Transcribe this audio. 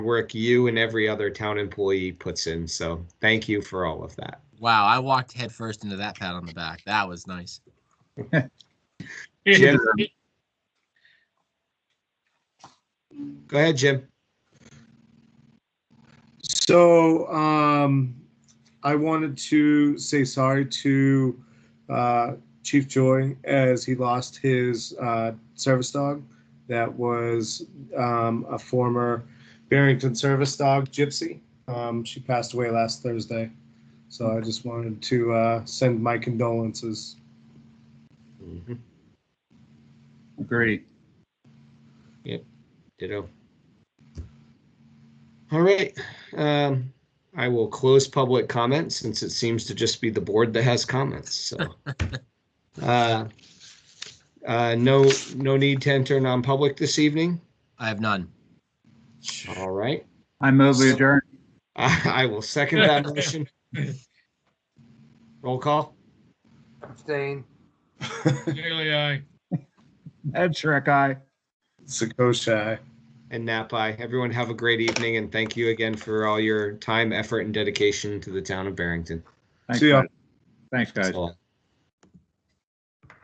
work you and every other town employee puts in. So thank you for all of that. Wow, I walked headfirst into that pat on the back. That was nice. Jim. Go ahead, Jim. So um, I wanted to say sorry to uh, Chief Joy as he lost his uh, service dog that was um, a former Barrington service dog, Gypsy. Um, she passed away last Thursday. So I just wanted to uh, send my condolences. Great. Ditto. All right. Um, I will close public comment since it seems to just be the board that has comments. So, uh, uh, no, no need to enter non-public this evening. I have none. All right. I move we adjourn. I, I will second that motion. Roll call. Abstain. Daily aye. Ed Shrek, aye. Sakoshai. And Napai. Everyone have a great evening and thank you again for all your time, effort, and dedication to the town of Barrington. Thanks, See ya. guys. Thanks, guys. That's all.